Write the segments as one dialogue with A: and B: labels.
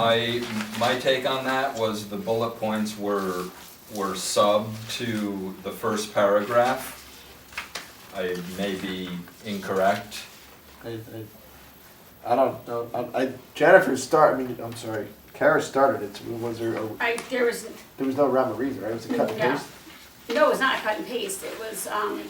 A: My, my take on that was the bullet points were, were sub to the first paragraph. I may be incorrect.
B: I, I, I don't know. I, I Jennifer started. I mean, I'm sorry. Kara started it. So was there? A,
C: I, there was,
B: there was no rhyme or reason, right? It was a cut and
C: Yeah.
B: paste.
C: no, it was not cut and paste, it was, um,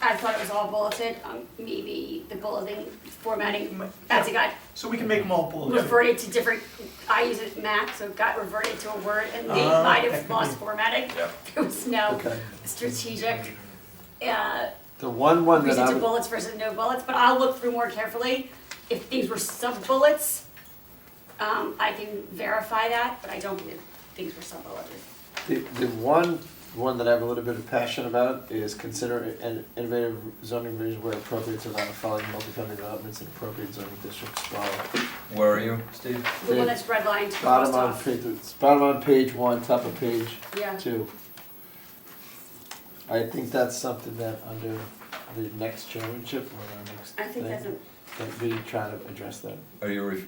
C: I thought it was all bulleted, um, maybe the bulleting formatting, as it got
D: So we can make them all bullet.
C: reverted to different, I use it Mac, so it got reverted to a word, and they
D: Ah,
C: might
D: that could
C: have
D: be.
C: lost formatting.
A: Yeah.
C: There was no
B: Okay.
C: strategic, uh,
B: The one one that
C: reason
B: I
C: to
B: would-
C: bullets versus no bullets, but I'll look through more carefully. If things were sub-bullets, um, I can verify that, but I don't believe things were sub-bulleted.
B: the, the one one that I have a little bit of passion about is consider an innovative zoning revision where appropriate to allow the following multifamily developments in appropriate zoning districts. While
A: Where are you, Steve?
C: The one
B: Yeah.
C: that's redlined,
B: bottom
C: crossed
B: on
C: off.
B: page, it's bottom on page one, top of page
C: Yeah.
B: two. I think that's something that under the next chairmanship or our next.
C: I think
B: thing,
C: that's a-
B: that we try to address that.
A: Are you, re-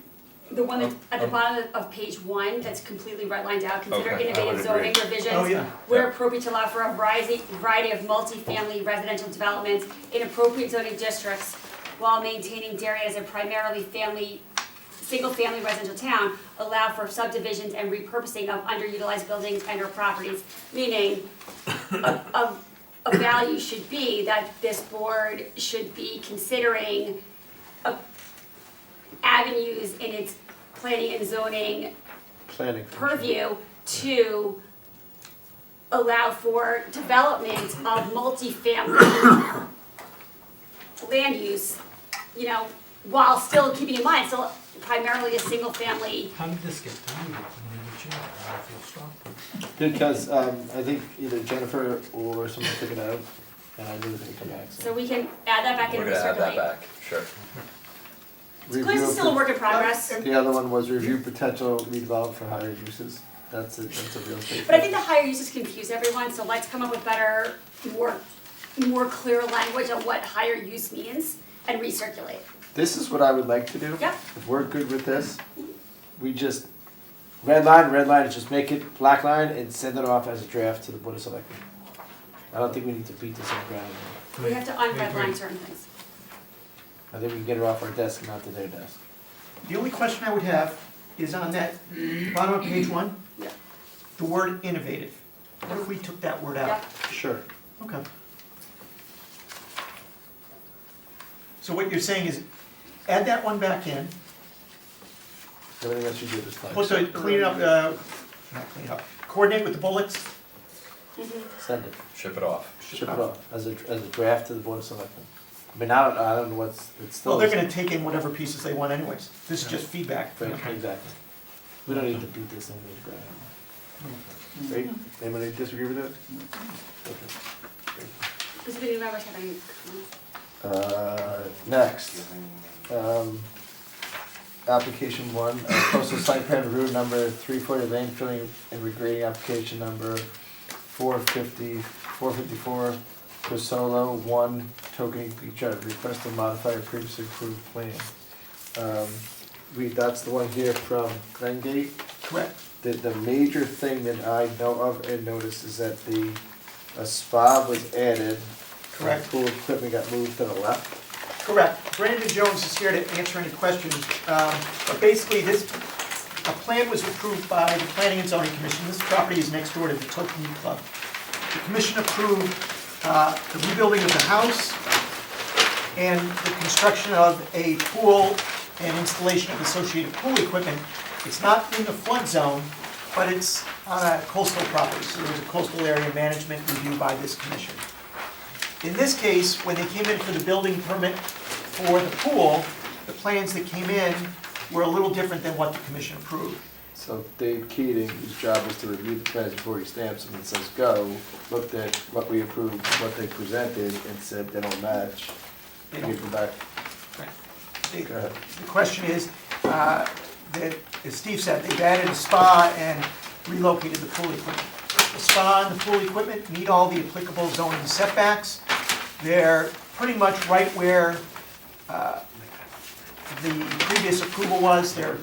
C: The one that, at the
B: Oh.
A: Um,
C: bottom of page one, that's completely redlined out, consider
A: Okay, I
C: innovative
A: would
C: zoning
A: agree.
C: revisions.
D: Oh, yeah.
C: Where
A: Yeah.
C: appropriate to allow for a variety, variety of multifamily residential developments in appropriate zoning districts while maintaining Darien as a primarily family, single-family residential town, allow for subdivisions and repurposing of underutilized buildings and or properties, meaning a, a, a value should be that this board should be considering a- avenues in its planning and zoning
B: Planning.
C: purview to allow for development of multifamily land use, you know, while still keeping in mind, still primarily a single family,
E: How did this get done? I mean, the chair, I feel strong.
B: Because, um, I think either Jennifer or someone took it out, and I knew they would come back,
C: so
B: so.
C: we can add that back in
A: we're
C: and
A: gonna add that
C: recirculate.
A: back, sure.
C: Because it's still a
B: Review
C: work in progress,
B: of- The other one was review potential redevelop for higher uses, that's a, that's a real estate.
C: but I think the higher uses confuse everyone, so let's come up with better, more, more clear language on what higher use means and recirculate.
B: This is what I would like to do.
C: Yep.
B: If we're good with this, we just, red line, red line, just make it black line and send it off as a draft to the Board of Selectmen. I don't think we need to beat this on ground,
C: We have to unredline certain things.
B: I think we can get it off our desk, not to their desk.
D: The only question I would have is on that bottom of page one,
C: Yeah,
D: the word innovative. What if we took that word
C: yeah.
D: out?
B: Sure.
D: Okay. So what you're saying is, add that one back in,
B: Everything else you do is fine.
D: also clean up, uh, not clean up, coordinate with the bullets.
C: Mm-hmm.
B: Send it.
A: Ship it off.
B: Ship it off as a, as a draft to the Board of Selectmen. I mean, I don't, I don't know what's, it's still.
D: Well, they're gonna take in whatever pieces they want anyways. This is just feedback.
B: Fair, Exactly. We don't need to beat this into the ground.
D: Mm-hmm.
B: Right? Anybody disagree with that? Okay.
C: Does anybody remember having comments?
B: Uh, next, um, application one, uh, coastal site plan route number three forty lane filling and regrading application number four fifty, four fifty-four, Crisolo one token beach drive, request to modify a previously approved plan. Um, we, that's the one here from Glen Gate.
D: Correct.
B: The, the major thing that I know of and noticed is that the, a spa was added.
D: Correct.
B: Pool equipment got moved to the left.
D: Correct. Brandon Jones is here to answer any questions. Um, But basically, this, a plan was approved by the Planning and Zoning Commission. This property is next door to the Tokenie Club. The commission approved uh, the rebuilding of the house and the construction of a pool and installation of associated pool equipment. It's not in the flood zone, but it's on a coastal property, so there's a coastal area management review by this commission. In this case, when they came in for the building permit for the pool, the plans that came in were a little different than what the commission approved.
B: So Dave Keating, whose job was to review the plans before he stamps them and says go, looked at what we approved, what they presented, and said they don't match.
D: They
B: Give
D: don't-
B: them back.
D: they-
B: Go ahead.
D: The question is, uh, that, as Steve said, they've added a spa and relocated the pool equipment. The spa and the pool equipment meet all the applicable zoning setbacks. They're pretty much right where uh, the previous approval was. They're